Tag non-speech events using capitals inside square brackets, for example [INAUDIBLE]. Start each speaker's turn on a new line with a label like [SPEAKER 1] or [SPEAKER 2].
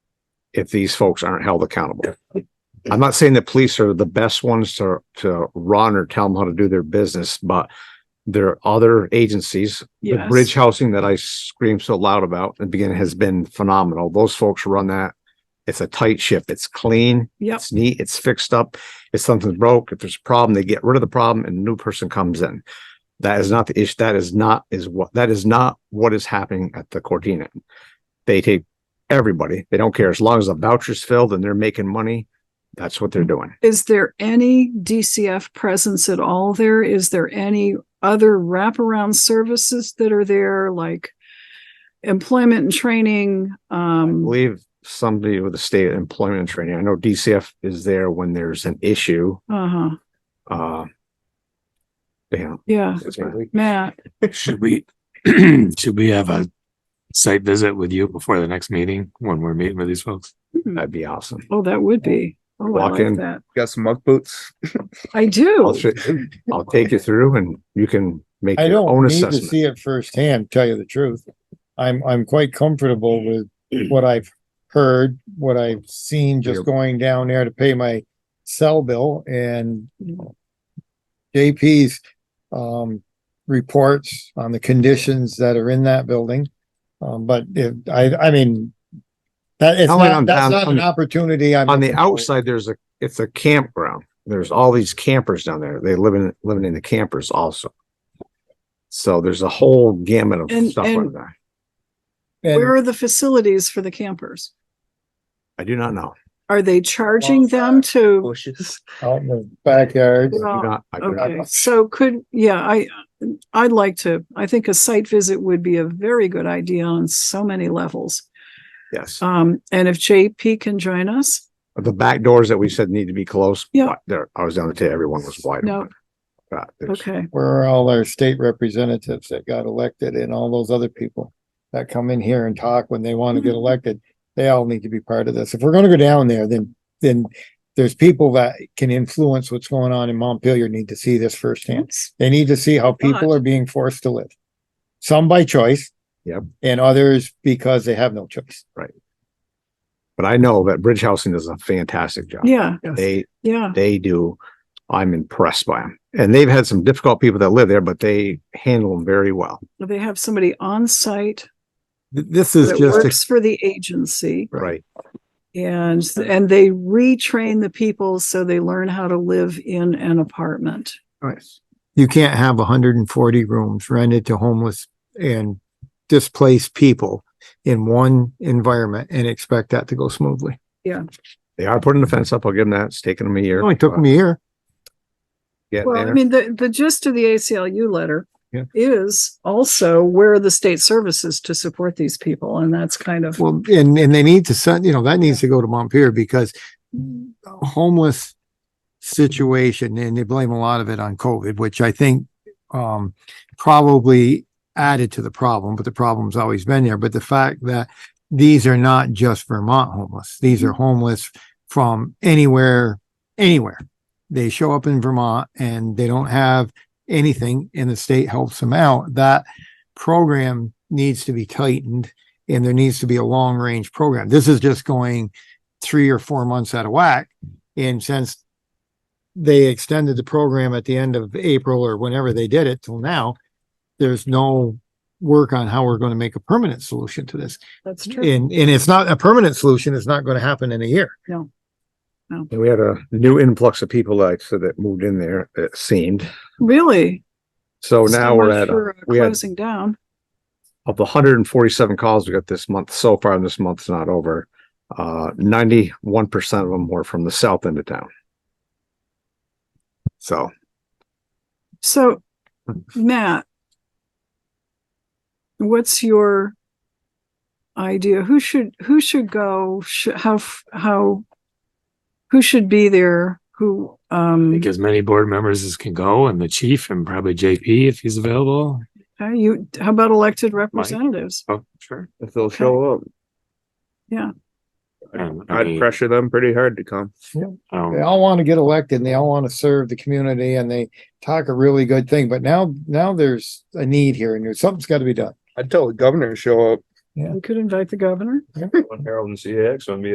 [SPEAKER 1] if these folks aren't held accountable. I'm not saying the police are the best ones to, to run or tell them how to do their business, but there are other agencies, the bridge housing that I scream so loud about in the beginning has been phenomenal. Those folks run that. It's a tight ship. It's clean.
[SPEAKER 2] Yep.
[SPEAKER 1] It's neat. It's fixed up. If something's broke, if there's a problem, they get rid of the problem and a new person comes in. That is not the issue. That is not is what that is not what is happening at the Cordina. They take everybody. They don't care. As long as the voucher's filled and they're making money, that's what they're doing.
[SPEAKER 2] Is there any DCF presence at all there? Is there any other wraparound services that are there, like employment and training?
[SPEAKER 1] I
[SPEAKER 2] Um,
[SPEAKER 1] believe somebody with the state employment and training. I know DCF is there when there's an issue.
[SPEAKER 2] uh-huh,
[SPEAKER 1] Uh, yeah,
[SPEAKER 2] yeah, Matt,
[SPEAKER 3] Should we, should we have a site visit with you before the next meeting when we're meeting with these folks?
[SPEAKER 1] that'd be awesome.
[SPEAKER 2] oh, that would be, oh, I
[SPEAKER 1] Walk in.
[SPEAKER 2] like that.
[SPEAKER 4] Got some muck boots.
[SPEAKER 2] I
[SPEAKER 1] I'll,
[SPEAKER 2] do.
[SPEAKER 1] tr- I'll take you through and you can make
[SPEAKER 5] I
[SPEAKER 1] your
[SPEAKER 5] don't
[SPEAKER 1] own
[SPEAKER 5] need to
[SPEAKER 1] assessment.
[SPEAKER 5] see it firsthand, tell you the truth. I'm, I'm quite comfortable
[SPEAKER 1] [CLEARS THROAT]
[SPEAKER 5] with what I've heard, what I've seen, just
[SPEAKER 1] Yep.
[SPEAKER 5] going down there to pay my cell bill and JP's, um, reports on the conditions that are in that building. Um, but if, I, I mean, that it's
[SPEAKER 1] I went
[SPEAKER 5] not,
[SPEAKER 1] on
[SPEAKER 5] that's
[SPEAKER 1] down-
[SPEAKER 5] not
[SPEAKER 1] on
[SPEAKER 5] an
[SPEAKER 1] the-
[SPEAKER 5] opportunity I'm.
[SPEAKER 1] On the
[SPEAKER 5] looking for.
[SPEAKER 1] outside, there's a, it's a campground. There's all these campers down there. They live in, living in the campers also. So there's a whole gamut of
[SPEAKER 2] And-
[SPEAKER 1] stuff
[SPEAKER 2] and-
[SPEAKER 1] like that.
[SPEAKER 2] Where
[SPEAKER 5] And
[SPEAKER 2] are the facilities for the campers?
[SPEAKER 1] I do not know.
[SPEAKER 2] Are they charging them to?
[SPEAKER 4] Bushes.
[SPEAKER 5] out in the backyard,
[SPEAKER 1] I do
[SPEAKER 2] Well,
[SPEAKER 1] not, I do not.
[SPEAKER 2] Okay, so could, yeah, I, I'd like to, I think a site visit would be a very good idea on so many levels.
[SPEAKER 1] Yes.
[SPEAKER 2] Um, and if JP can join us,
[SPEAKER 1] The back doors that we said need to be closed.
[SPEAKER 2] Yeah.
[SPEAKER 1] but There, I was down there, today, everyone was wide
[SPEAKER 2] No.
[SPEAKER 1] open. Uh, there's-
[SPEAKER 2] okay,
[SPEAKER 5] where are all our state representatives that got elected and all those other people that come in here and talk when they want to get elected? They all need to be part of this. If we're gonna go down there, then, then there's people that can influence what's going on in Montpelier need to see this
[SPEAKER 2] Mm-hmm.
[SPEAKER 5] firsthand. They need to see how people
[SPEAKER 2] Right.
[SPEAKER 5] are being forced to live. Some by choice.
[SPEAKER 1] Yep.
[SPEAKER 5] And others because they have no choice.
[SPEAKER 1] But I know that Bridge Housing does a fantastic job.
[SPEAKER 2] yeah,
[SPEAKER 1] They,
[SPEAKER 2] yeah,
[SPEAKER 1] they do. I'm impressed by them. And they've had some difficult people that live there, but they handle them very well.
[SPEAKER 2] they have somebody on site
[SPEAKER 3] This
[SPEAKER 2] that works for the agency
[SPEAKER 1] Right.
[SPEAKER 2] and, and they retrain the people so they learn how to live in an apartment.
[SPEAKER 5] you can't have hundred and forty rooms rented to homeless and displaced people in one environment and expect that to go smoothly.
[SPEAKER 1] They are putting the fence up. I'll give them that. It's taken them a year. uh,
[SPEAKER 5] It only took me a year.
[SPEAKER 1] Get
[SPEAKER 2] Well, I
[SPEAKER 1] there.
[SPEAKER 2] mean, the, the gist of the ACLU letter
[SPEAKER 1] Yeah.
[SPEAKER 2] is also where are the state services to support these people? And that's kind of,
[SPEAKER 5] Well, and, and they need to send, you know, that needs to go to Montpelier because homeless situation, and they blame a lot of it on COVID, which I think, um, probably added to the problem, but the problem's always been there. But the fact that these are not just Vermont homeless, these are homeless from anywhere, anywhere. They show up in Vermont and they don't have anything and the state helps them out. That program needs to be tightened and there needs to be a long range program. This is just going three or four months out of whack. And since they extended the program at the end of April or whenever they did it till now, there's no work on how we're going to make a permanent solution to this.
[SPEAKER 2] that's true.
[SPEAKER 5] And, and it's not a permanent solution. It's not going to happen in a year.
[SPEAKER 1] And we had a new influx of people like, so that moved in there, it seemed.
[SPEAKER 2] Really?
[SPEAKER 1] So
[SPEAKER 2] So
[SPEAKER 1] Oh, now we're
[SPEAKER 2] much
[SPEAKER 1] at, a-
[SPEAKER 2] for, uh,
[SPEAKER 1] we had
[SPEAKER 2] Closing down.
[SPEAKER 1] of the hundred and forty-seven calls we got this month, so far this month's not over. Uh, ninety-one percent of them were from the south end of town. So.
[SPEAKER 2] So, Matt, what's your idea? Who should, who should go? Sh- How, f- how, who should be there? Who,
[SPEAKER 3] I
[SPEAKER 2] um,
[SPEAKER 3] think as many board members as can go and the chief and probably JP if he's available.
[SPEAKER 2] how you, how about elected representatives?
[SPEAKER 3] Oh, sure.
[SPEAKER 4] If they'll show up,
[SPEAKER 3] Um, I
[SPEAKER 4] I'd
[SPEAKER 3] mean,
[SPEAKER 4] pressure them pretty hard to come.
[SPEAKER 3] um,
[SPEAKER 5] They all want to get elected and they all want to serve the community and they talk a really good thing. But now, now there's a need here and there's- something's got to be done.
[SPEAKER 4] I'd tell the governor to show up.
[SPEAKER 2] We could invite the governor.
[SPEAKER 4] Harold and CX, I'd be